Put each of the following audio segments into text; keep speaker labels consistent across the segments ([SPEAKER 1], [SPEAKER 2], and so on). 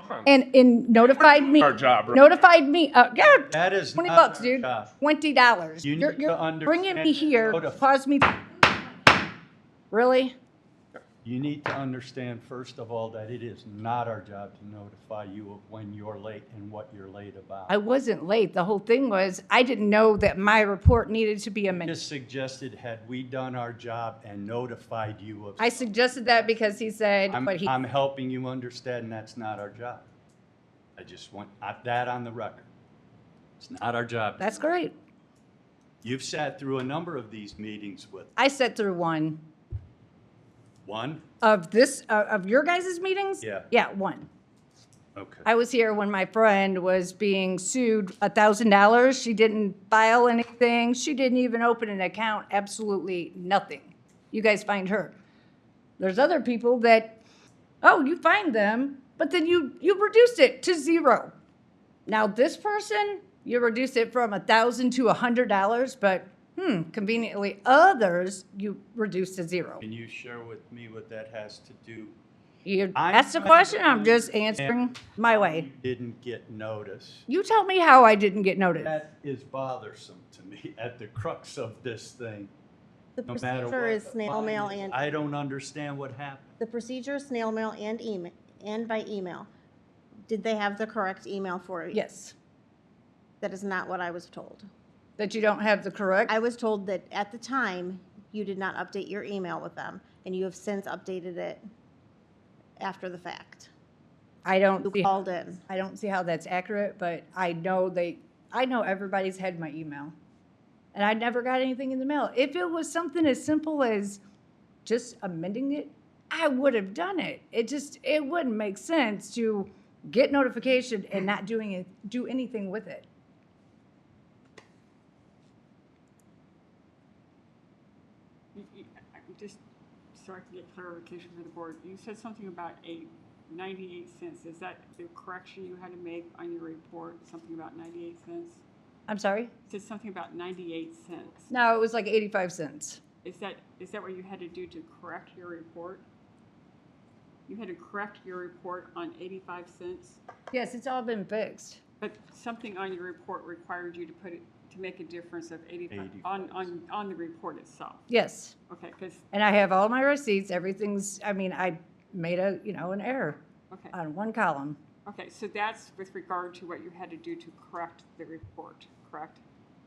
[SPEAKER 1] from.
[SPEAKER 2] and, and notified me.
[SPEAKER 1] Our job, right?
[SPEAKER 2] Notified me, uh, yeah.
[SPEAKER 3] That is
[SPEAKER 2] Twenty
[SPEAKER 3] not
[SPEAKER 2] bucks,
[SPEAKER 3] our
[SPEAKER 2] dude,
[SPEAKER 3] job.
[SPEAKER 2] twenty dollars.
[SPEAKER 3] You
[SPEAKER 2] You're,
[SPEAKER 3] need
[SPEAKER 2] you're
[SPEAKER 3] to
[SPEAKER 2] bringing me
[SPEAKER 3] understand
[SPEAKER 2] here,
[SPEAKER 3] how to-
[SPEAKER 2] cause me. Really?
[SPEAKER 3] You need to understand, first of all, that it is not our job to notify you of when you're late and what you're late
[SPEAKER 2] I
[SPEAKER 3] about.
[SPEAKER 2] wasn't late. The whole thing was, I didn't know that my report needed to be amended.
[SPEAKER 3] Just suggested, had we done our job and notified you of,
[SPEAKER 2] I suggested that because he said,
[SPEAKER 3] I'm,
[SPEAKER 2] but he,
[SPEAKER 3] I'm helping you understand that's not our job. I just want I- that on the record. It's not our job.
[SPEAKER 2] that's great.
[SPEAKER 3] You've sat through a number of these meetings with,
[SPEAKER 2] I sat through one
[SPEAKER 3] one?
[SPEAKER 2] of this, uh, of your guys' meetings?
[SPEAKER 3] Yeah.
[SPEAKER 2] Yeah, one.
[SPEAKER 3] Okay.
[SPEAKER 2] I was here when my friend was being sued a thousand dollars. She didn't file anything. She didn't even open an account, absolutely nothing. You guys find her. There's other people that, oh, you find them, but then you, you reduced it to zero. Now this person, you reduce it from a thousand to a hundred dollars, but hmm, conveniently others, you reduce to zero.
[SPEAKER 3] Can you share with me what that has to do?
[SPEAKER 2] You
[SPEAKER 3] I'm
[SPEAKER 2] asked a
[SPEAKER 3] trying to
[SPEAKER 2] question, I'm just
[SPEAKER 3] understand
[SPEAKER 2] answering my way.
[SPEAKER 3] You Didn't get notice.
[SPEAKER 2] You tell me how I didn't get noticed.
[SPEAKER 3] That is bothersome to me at the crux of this thing,
[SPEAKER 4] The
[SPEAKER 3] no matter what.
[SPEAKER 4] procedure is
[SPEAKER 3] the
[SPEAKER 4] snail
[SPEAKER 3] fine
[SPEAKER 4] mail
[SPEAKER 3] is.
[SPEAKER 4] and,
[SPEAKER 3] I don't understand what happened.
[SPEAKER 4] the procedure is snail mail and email, and by email. Did they have the correct email for you?
[SPEAKER 2] Yes,
[SPEAKER 4] That is not what I was told.
[SPEAKER 2] that you don't have the correct.
[SPEAKER 4] I was told that at the time, you did not update your email with them, and you have since updated it after the fact.
[SPEAKER 2] I
[SPEAKER 4] You
[SPEAKER 2] don't see,
[SPEAKER 4] called in.
[SPEAKER 2] I don't see how that's accurate, but I know they, I know everybody's had my email. And I never got anything in the mail. If it was something as simple as just amending it, I would have done it. It just, it wouldn't make sense to get notification and not doing it, do anything with it.
[SPEAKER 5] You- you- I'm just sorry to get clarification for the board. You said something about a 98 cents. Is that the correction you had to make on your report, something about 98 cents?
[SPEAKER 2] I'm sorry?
[SPEAKER 5] You said something about 98 cents.
[SPEAKER 2] No, it was like 85 cents.
[SPEAKER 5] Is that, is that what you had to do to correct your report? You had to correct your report on 85 cents?
[SPEAKER 2] Yes, it's all been fixed.
[SPEAKER 5] But something on your report required you to put it, to make a difference of 85,
[SPEAKER 3] 85
[SPEAKER 5] on, on, on the report itself.
[SPEAKER 2] Yes.
[SPEAKER 5] Okay, because,
[SPEAKER 2] And I have all my receipts, everything's, I mean, I made a, you know, an error
[SPEAKER 5] okay.
[SPEAKER 2] on one column.
[SPEAKER 5] Okay, so that's with regard to what you had to do to correct the report, correct?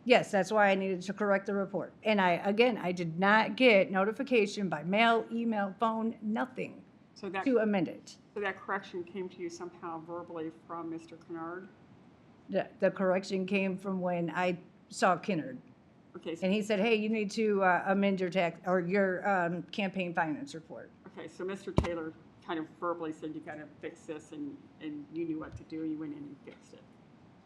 [SPEAKER 2] Yes, that's why I needed to correct the report. And I, again, I did not get notification by mail, email, phone, nothing
[SPEAKER 5] So that,
[SPEAKER 2] to uh,
[SPEAKER 5] so
[SPEAKER 2] amend it.
[SPEAKER 5] that correction came to you somehow verbally from Mr. Kennard?
[SPEAKER 2] The, the correction came from when I saw Kennard.
[SPEAKER 5] Okay, so,
[SPEAKER 2] And he said, hey, you need to uh, amend your tax, or your um, campaign finance report.
[SPEAKER 5] okay, so Mr. Taylor kind of verbally said you gotta fix this and, and you knew what to do, you went in and fixed it.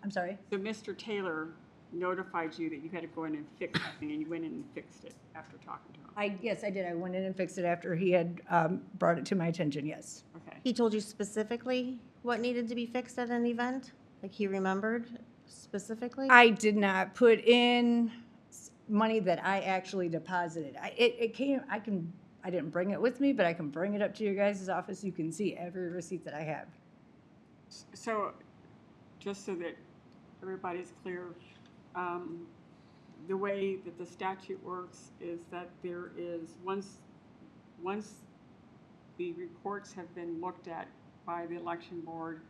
[SPEAKER 2] I'm sorry?
[SPEAKER 5] So Mr. Taylor notified you that you had to go in and fix something and you went in and fixed it after talking to him,
[SPEAKER 2] I, yes, I did. I went in and fixed it after he had um, brought it to my attention, yes.
[SPEAKER 5] okay?
[SPEAKER 4] He told you specifically what needed to be fixed at an event? Like he remembered specifically?
[SPEAKER 2] I did not put in s- money that I actually deposited. I, it, it came, I can, I didn't bring it with me, but I can bring it up to your guys' office. You can see every receipt that I have.
[SPEAKER 5] So, just so that everybody's clear, um, the way that the statute works is that there is, once, once the reports have been looked at by the election board,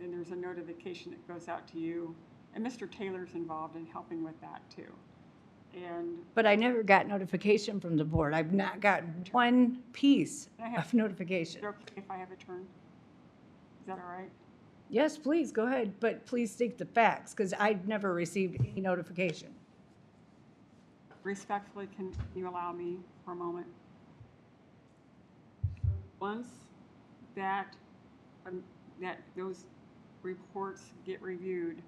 [SPEAKER 5] then there's a notification that goes out to you, and Mr. Taylor's involved in helping with that too. And
[SPEAKER 2] But I never got notification from the board. I've not gotten one piece
[SPEAKER 5] I have-
[SPEAKER 2] of notification.
[SPEAKER 5] is it okay if I have a turn? Is that all right?
[SPEAKER 2] Yes, please, go ahead, but please state the facts, because I've never received any notification.
[SPEAKER 5] respectfully, can you allow me for a moment? Once that, um, that those reports get reviewed,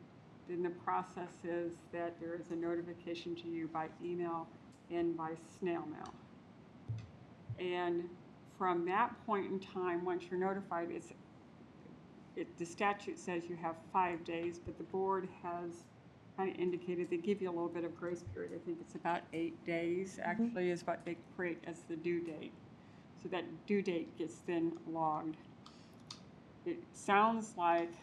[SPEAKER 5] then the process is that there is a notification to you by email and by snail mail. And from that point in time, once you're notified, it's, it, the statute says you have five days, but the board has kind of indicated they give you a little bit of grace period. I think it's about eight days actually is what they create as the due date. So that due date gets then logged. it sounds like